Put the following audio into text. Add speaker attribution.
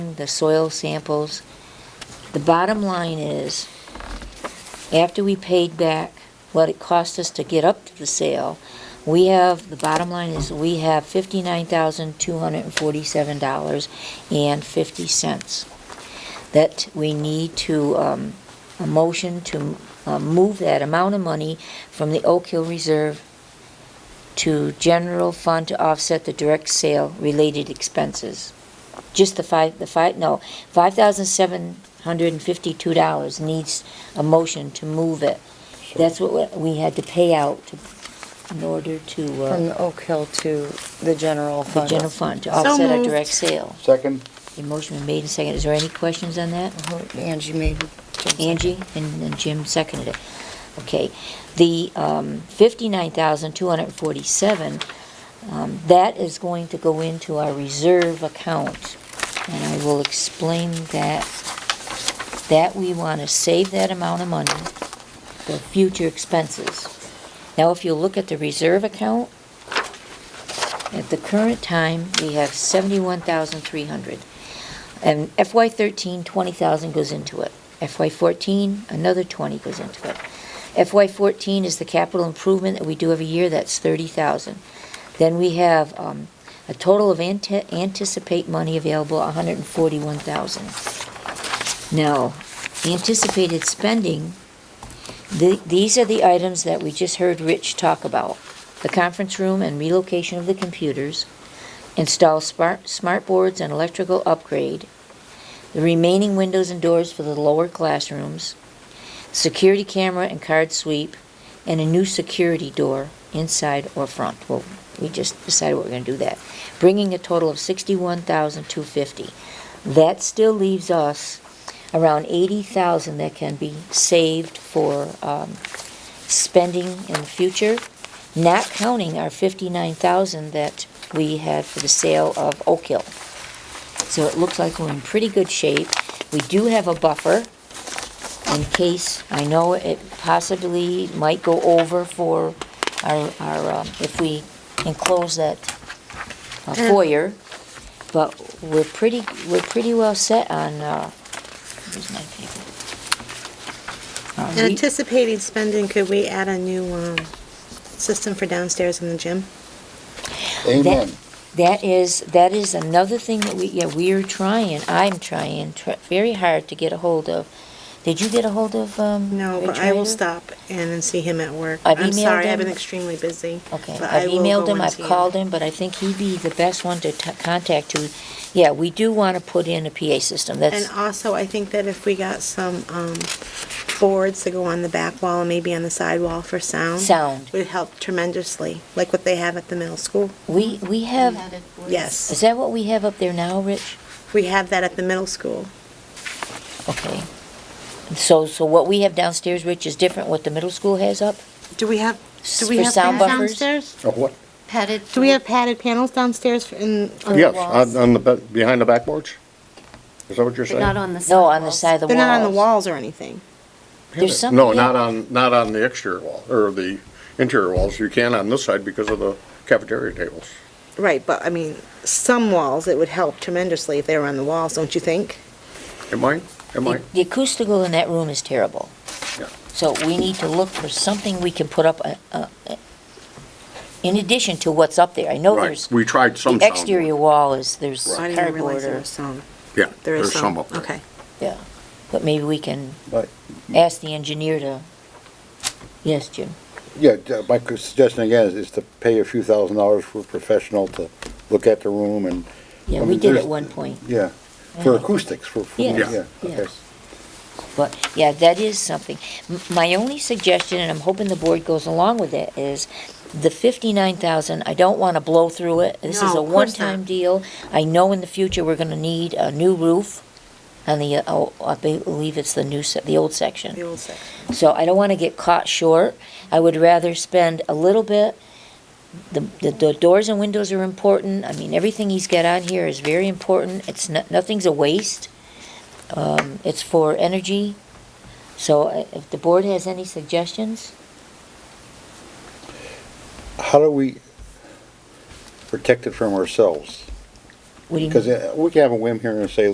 Speaker 1: testing, the soil samples. The bottom line is, after we paid back what it cost us to get up to the sale, we have, the bottom line is, we have fifty-nine thousand, two hundred and forty-seven dollars and fifty cents. That we need to, um, a motion to, uh, move that amount of money from the Oak Hill Reserve to general fund to offset the direct sale related expenses. Just the five, the five, no, five thousand seven hundred and fifty-two dollars needs a motion to move it. That's what we we had to pay out to, in order to,
Speaker 2: From
Speaker 1: uh,
Speaker 2: the Oak Hill to the general
Speaker 1: the
Speaker 2: fund.
Speaker 1: general fund, to offset our
Speaker 3: moved.
Speaker 1: direct sale.
Speaker 4: Second?
Speaker 1: The motion been made and seconded. Is there any questions on that?
Speaker 2: Mhm, Angie made.
Speaker 1: Angie and and Jim seconded it. Okay, the um, 59,247, um, that is going to go into our reserve account. And I will explain that, that we want to save that amount of money for future expenses. Now, if you look at the reserve account, at the current time, we have 71,300. And FY thirteen, twenty thousand goes into it. FY fourteen, another twenty goes into it. FY fourteen is the capital improvement that we do every year, that's thirty thousand. Then we have, um, a total of ante- anticipate money available, hundred and forty-one thousand. Now, anticipated spending, the, these are the items that we just heard Rich talk about. The conference room and relocation of the computers, install smart, smart boards and electrical upgrade, the remaining windows and doors for the lower classrooms, security camera and card sweep, and a new security door inside or front. Well, we just decided we're gonna do that, bringing a total of sixty-one thousand two fifty. That still leaves us around eighty thousand that can be saved for, um, spending in the future, not counting our fifty-nine thousand that we had for the sale of Oak Hill. So it looks like we're in pretty good shape. We do have a buffer in case, I know it possibly might go over for our, our, um, if we enclose that uh, foyer, but we're pretty, we're pretty well set on, uh, where's my paper? Uh, we-
Speaker 3: Anticipating spending, could we add a new um, system for downstairs in the gym?
Speaker 4: Amen.
Speaker 1: That is, that is another thing that we, yeah, we're trying, I'm trying tr- very hard to get a hold of. Did you get a hold of, um?
Speaker 3: No, but
Speaker 1: Rich
Speaker 3: I will
Speaker 1: Rader?
Speaker 3: stop in and see him at work.
Speaker 1: I've
Speaker 3: I'm
Speaker 1: emailed
Speaker 3: sorry, I've been
Speaker 1: him.
Speaker 3: extremely busy.
Speaker 1: Okay,
Speaker 3: but I
Speaker 1: I've
Speaker 3: will
Speaker 1: emailed
Speaker 3: go
Speaker 1: him,
Speaker 3: and
Speaker 1: I've
Speaker 3: see
Speaker 1: called him, but I think he'd be the best one to t- contact to, yeah, we do want to put in a PA system, that's,
Speaker 3: And also, I think that if we got some um, boards to go on the back wall and maybe on the side wall for sound.
Speaker 1: Sound.
Speaker 3: Would help tremendously, like what they have at the middle school.
Speaker 1: we, we have,
Speaker 3: Yes,
Speaker 1: is that what we have up there now, Rich?
Speaker 3: we have that at the middle school.
Speaker 1: Okay. So, so what we have downstairs, Rich, is different what the middle school has up?
Speaker 3: Do we have, do we
Speaker 1: For
Speaker 3: have
Speaker 1: sound
Speaker 3: panels
Speaker 1: buffers?
Speaker 3: downstairs?
Speaker 4: Oh, what?
Speaker 5: Padded.
Speaker 3: Do we have padded panels downstairs for- in? uh, on the
Speaker 4: Yes,
Speaker 5: walls.
Speaker 4: on on the, be- behind the back porch? Is that what you're
Speaker 5: But
Speaker 4: saying?
Speaker 5: not on the side.
Speaker 1: No, on the side of the
Speaker 3: They're
Speaker 1: walls.
Speaker 3: not on the walls or anything.
Speaker 1: There's something.
Speaker 4: No, not on, not on the exterior wall, or the interior walls. You can on this side because of the cafeteria tables.
Speaker 3: Right, but I mean, some walls, it would help tremendously if they were on the walls, don't you think?
Speaker 4: Am I, am I?
Speaker 1: The the acoustical in that room is terrible.
Speaker 4: Yeah.
Speaker 1: So we need to look for something we can put up, uh, uh, in addition to what's up there. I know
Speaker 4: Right,
Speaker 1: there's,
Speaker 4: we tried some
Speaker 1: the
Speaker 4: sound.
Speaker 1: exterior wall is, there's
Speaker 3: I didn't even
Speaker 1: cardboard
Speaker 3: realize there
Speaker 1: or,
Speaker 3: was some.
Speaker 4: Yeah,
Speaker 3: There is
Speaker 4: there's
Speaker 3: some.
Speaker 4: some up there.
Speaker 3: Okay.
Speaker 1: yeah. But maybe we can
Speaker 6: But,
Speaker 1: ask the engineer to, yes, Jim?
Speaker 6: yeah, uh, my suggestion again is- is to pay a few thousand dollars for a professional to look at the room and,
Speaker 1: Yeah,
Speaker 6: I
Speaker 1: we
Speaker 6: mean,
Speaker 1: did
Speaker 6: there's-
Speaker 1: at one point,
Speaker 6: yeah, for acoustics, for, for-
Speaker 1: Yes,
Speaker 6: yeah, okay.
Speaker 1: yes. but, yeah, that is something. M- My only suggestion, and I'm hoping the board goes along with it, is the fifty-nine thousand, I don't want to blow through it. This is
Speaker 3: No,
Speaker 1: a
Speaker 3: of course not.
Speaker 1: one-time deal. I know in the future, we're going to need a new roof on the, uh, oh, I be- believe it's the new, se- the old section.
Speaker 3: The old section.
Speaker 1: So I don't want to get caught short. I would rather spend a little bit. The, the, the doors and windows are important. I mean, everything he's got on here is very important. It's not, nothing's a waste. Um, it's for energy. So uh, if the board has any suggestions,
Speaker 6: How do we protect it from ourselves?
Speaker 1: what do you mean?
Speaker 6: Because uh, we can have a whim here and say,